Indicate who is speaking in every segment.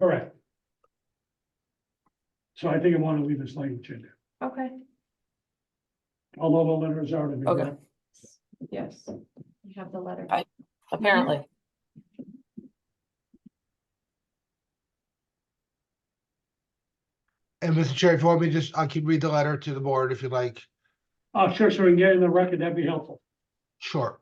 Speaker 1: Correct. So I think I want to leave this language in there,
Speaker 2: Okay,
Speaker 1: although the letters are to be.
Speaker 3: Okay.
Speaker 2: yes. You have the letter.
Speaker 3: I- apparently.
Speaker 4: And Mr. Chair, if you want me to just, I can read the letter to the board if you'd like.
Speaker 1: Oh, sure, so we can get it in the record, that'd be helpful.
Speaker 4: Sure.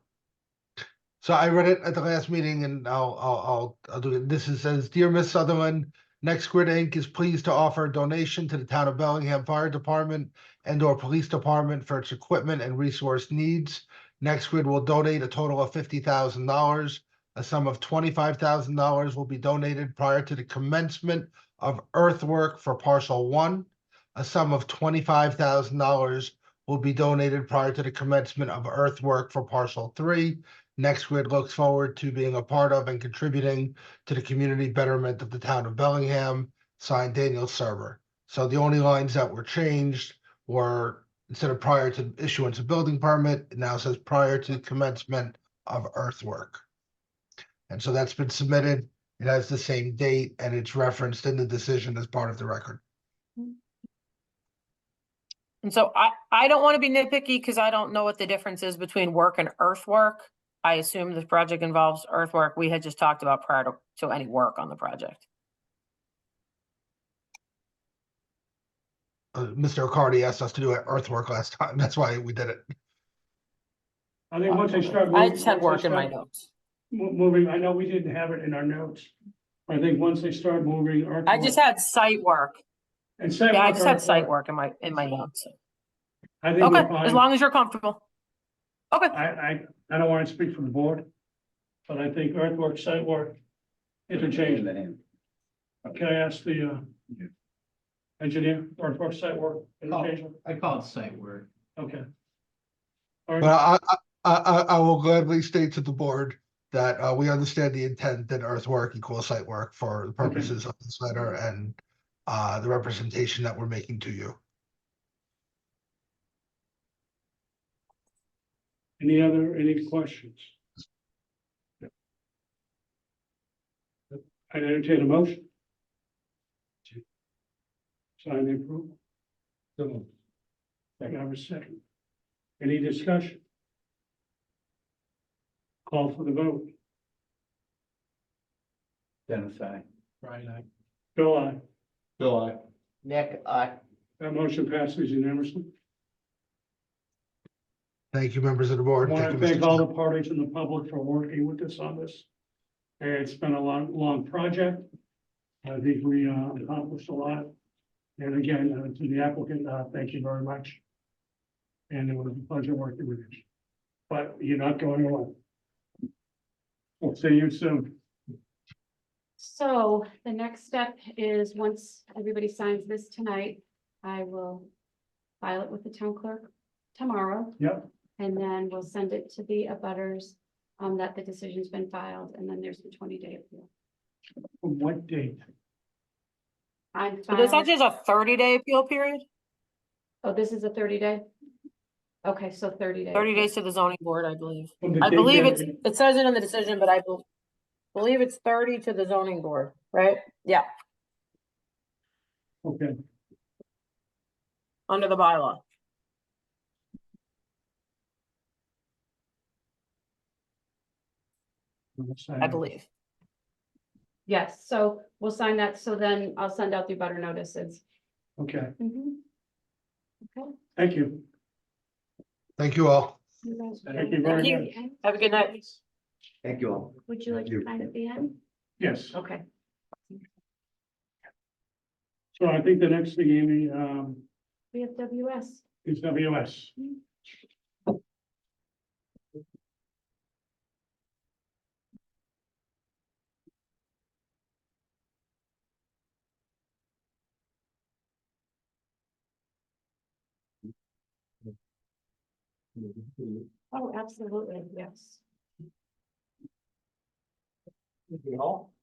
Speaker 4: So I read it at the last meeting and I'll, I'll, I'll, I'll do it. This is says, Dear Miss Sutherland, Next Grid Inc. is pleased to offer a donation to the town of Bellingham Fire Department and or Police Department for its equipment and resource needs. Next Grid will donate a total of fifty thousand dollars. A sum of twenty-five thousand dollars will be donated prior to the commencement of earthwork for parcel one. A sum of twenty-five thousand dollars will be donated prior to the commencement of earthwork for parcel three. Next Grid looks forward to being a part of and contributing to the community betterment of the town of Bellingham, signed Daniel Serber. So the only lines that were changed were instead of prior to issuance of building permit, it now says prior to commencement of earthwork. And so that's been submitted. It has the same date and it's referenced in the decision as part of the record.
Speaker 3: And so I, I don't want to be nitpicky because I don't know what the difference is between work and earthwork. I assume this project involves earthwork. We had just talked about prior to, to any work on the project.
Speaker 4: Uh, Mr. O'Cardy asked us to do earthwork last time. That's why we did it.
Speaker 1: I think once they start.
Speaker 3: I
Speaker 1: moving-
Speaker 3: just had
Speaker 1: once
Speaker 3: work
Speaker 1: they
Speaker 3: in my
Speaker 1: start
Speaker 3: notes.
Speaker 1: mo- Moving, I know we didn't have it in our notes, I think once they start moving.
Speaker 3: I just had site work.
Speaker 1: And site
Speaker 3: Yeah, I
Speaker 1: work
Speaker 3: just
Speaker 1: or-
Speaker 3: had site work in my, in my notes.
Speaker 1: I think
Speaker 3: Okay,
Speaker 1: we're fine.
Speaker 3: as long as you're comfortable. Okay,
Speaker 1: I, I, I don't want to speak for the board, but I think earthwork, site work, interchange. Can I ask the, uh, engineer, earthwork, site work, interchange?
Speaker 5: I call it site work.
Speaker 1: Okay. All
Speaker 4: But
Speaker 1: right,
Speaker 4: I, I- I, I, I will gladly state to the board that, uh, we understand the intent that earthwork equals site work for the purposes of this letter and, uh, the representation that we're making to you.
Speaker 1: any other, any questions? I entertain a motion. Sign the approval. So. I have a second. Any discussion? Call for the vote.
Speaker 5: Dennis, I. Brian, I.
Speaker 1: Bill, I,
Speaker 5: Bill, I. Nick, I.
Speaker 1: that motion passes unanimously.
Speaker 4: Thank you, members of the
Speaker 1: I
Speaker 4: board.
Speaker 1: want to
Speaker 4: Thank you,
Speaker 1: thank
Speaker 4: Mr.
Speaker 1: all
Speaker 4: Chair.
Speaker 1: the parties in the public for working with us on this. And It's been a long, long project. I think we uh, accomplished a lot. And again, uh, to the applicant, uh, thank you very much. And it was a pleasure working with you. But you're not going alone. We'll see you soon.
Speaker 6: So the next step is, once everybody signs this tonight, I will file it with the town clerk tomorrow.
Speaker 1: Yep.
Speaker 6: And then we'll send it to the abutters, um, that the decision's been filed, and then there's the twenty day appeal.
Speaker 1: From What date?
Speaker 6: I'm
Speaker 3: so there's
Speaker 6: filed-
Speaker 3: actually a thirty day appeal period,
Speaker 6: oh, this is a thirty day? Okay, so thirty days.
Speaker 3: thirty days to the zoning board, I believe.
Speaker 1: From the
Speaker 3: I
Speaker 1: date
Speaker 3: believe
Speaker 1: that-
Speaker 3: it's, it says it in the decision, but I bel- believe it's thirty to the zoning board, right? Yeah,
Speaker 1: Okay,
Speaker 3: under the bylaw. I believe.
Speaker 6: Yes, so we'll sign that, so then I'll send out the abutter notices.
Speaker 1: Okay,
Speaker 6: Mhm. Okay.
Speaker 1: thank you.
Speaker 4: Thank you all.
Speaker 6: You guys-
Speaker 1: Thank you very
Speaker 3: Thank
Speaker 1: much.
Speaker 3: Have a good night.
Speaker 5: Thank you all.
Speaker 6: Would you like to sign at the end?
Speaker 1: Yes.
Speaker 6: Okay.
Speaker 1: So I think the next thing, Amy, um,
Speaker 6: We have WS.
Speaker 1: is WS.
Speaker 6: Oh, absolutely, yes.
Speaker 5: Thank you all.